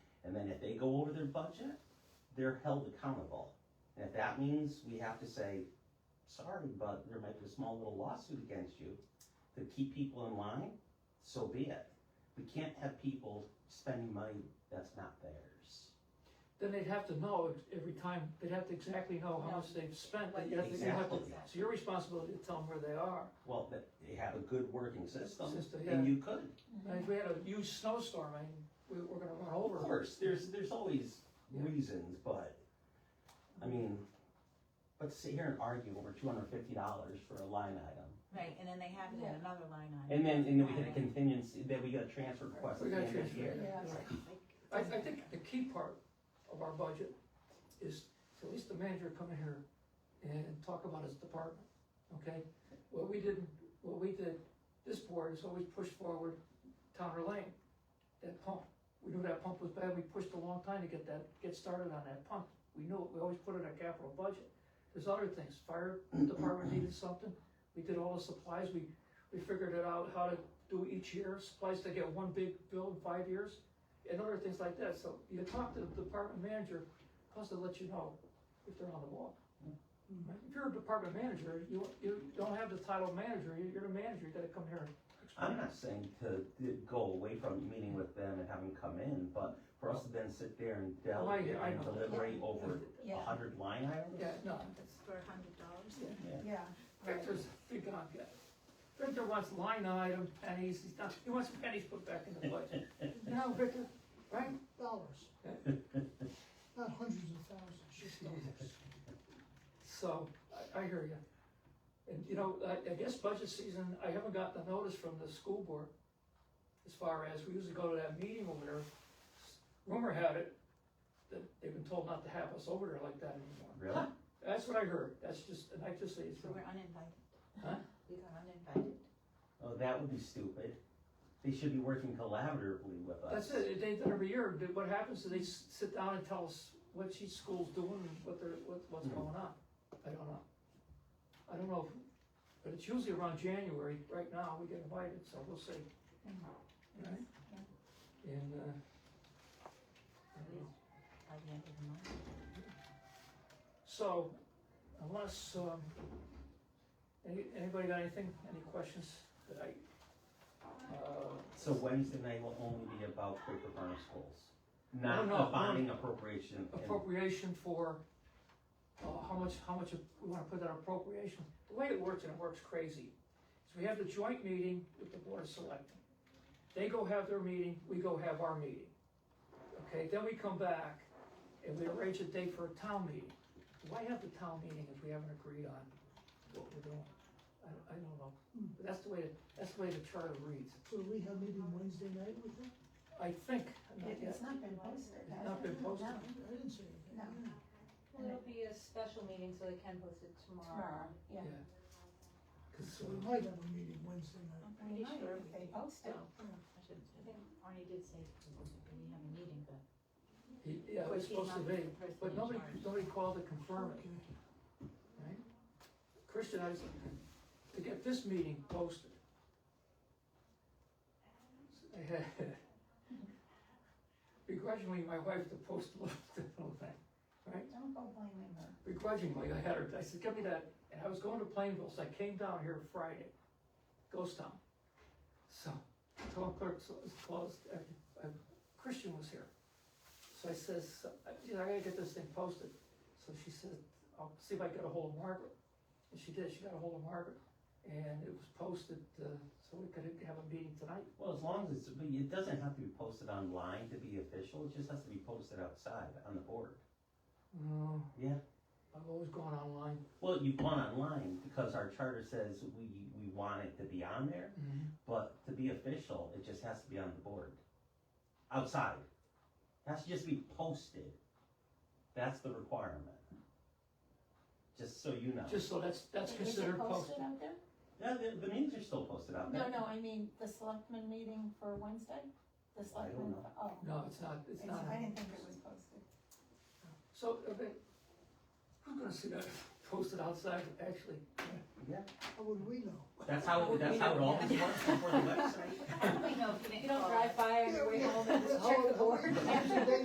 And if they go over their budget, they're held accountable. And if that means we have to say, sorry, but there might be a small little lawsuit against you to keep people in line, so be it. We can't have people spending money that's not theirs. Then they'd have to know ex- every time, they'd have to exactly know how much they've spent, that you have to, you have to, Exactly. it's your responsibility to tell them where they are. Well, that they have a good working system, System, and you could. And if we had a huge snowstorm, I mean, we, we're gonna run Of over. them. course, there's, there's always Yeah. reasons, but, I mean, but to sit here and argue over two hundred fifty dollars for a line item. Right, and then they have it in Yeah. another line item. And then, and then we had a contingency, then we got a transfer request at We the gotta end of the transfer, year. Yeah. yeah. I, I think the key part of our budget is to at least the manager come in here and talk about his department, okay? What we did, what we did, this board has always pushed forward Towner Lane, that pump. We knew that pump was bad, we pushed a long time to get that, get started on that pump. We knew it, we always put it in our capital budget. There's other things, fire department needed something, we did all the supplies, we, we figured it out how to do each year, supplies to get one big bill in five years and other things like that. So you talk to the department manager, plus they'll let you know if they're on the wall. Right? If you're a department manager, you, you don't have the title of manager, you- you're the manager, you gotta come here and I'm not saying to to go away from meeting with them and have them come in, but for us to then sit there and delegate Oh, I and know. deliberate over a Yeah, hundred line items? Yeah, no, That's for a hundred dollars. Yeah. yeah. right. Victor's big on that. Victor wants line item pennies, he's not, he wants pennies put back in the budget, you know, Victor, right? dollars, not hundreds of thousands, just dollars. So, I, I hear you. And, you know, I, I guess budget season, I haven't gotten a notice from the school board as far as, we usually go to that meeting over there. Rumor had it that they've been told not to have us over there like that anymore. Really? That's what I heard, that's just, and I just say it's So rumor. we're uninvited. Huh? We got uninvited. Oh, that would be stupid. They should be working collaboratively with us. That's it, they, do it every year, They- what happens is they s- sit down and tell us what each school's doing, and what they're, what, what's Mhm. going on. I don't know. I don't know, if- but it's usually around January, right now, we get invited, so we'll see. Right? And, uh, I don't know. By the end of the month. so unless, um, any, anybody got anything, any questions that I, uh, So Wednesday night will only be about Quaker Farm schools, not no, the bonding appropriation. and- appropriation for, uh, how much, how much we wanna put that appropriation. The way it works, and it works crazy, is we have the joint meeting with the board of selectmen. They go have their meeting, we go have our meeting. Okay, then we come back and we arrange a date for a town meeting. Why have the town meeting if we haven't agreed on what we're doing? I, I don't know, but that's the way, that's the way the charter reads. So we have meeting Wednesday night with them? I think, not It- yet. It's not been posted. It's not been posted. I I didn't say anything. No. yeah. Well, It'll be a special meeting, so they can post it tomorrow. Tomorrow, yeah. Yeah. 'Cause, So uh, we might have a meeting Wednesday night. I'm pretty sure if they post it. hmm, I should, I think Arnie did say we have a meeting, but. yeah, it's supposed to be, but nobody, nobody called to confirm it. Okay. Christian, I was, to get this meeting posted. I had Begrudgingly, my wife to post the little thing, right? Don't go blaming her. Begrudgingly, I had her, I said, give me that, and I was going to Plainville, so I came down here Friday, ghost town. So, town clerk's was closed, I- I- Christian was here. So I says, I- you know, I gotta get this thing posted. So she said, I'll see if I can get a hold of Margaret. And she did, she got a hold of Margaret, and it was posted, uh, so we could have a meeting tonight. Well, as long as it's, but it doesn't have to be posted online to be official, it just has to be posted outside on the board. No, Yeah. I've always gone online. Well, you've gone online because our charter says we, we want it to be on there, but to be official, it just has to be on the board. Outside. It has to just be posted. That's the requirement. Just so you know. Just so that's, that's Is it considered posted. Posted out there? Yeah, the, the meetings are still posted out there. No, no, I mean, the selectmen meeting for Wednesday? The selectmen, know. oh. No, it's not, it's It's- not. I didn't think it was posted. So, okay, who's gonna see that posted outside, actually? How would we know? That's how, that's how it always works before the website. I don't know if You don't drive by on your way home and just check the board. How- how-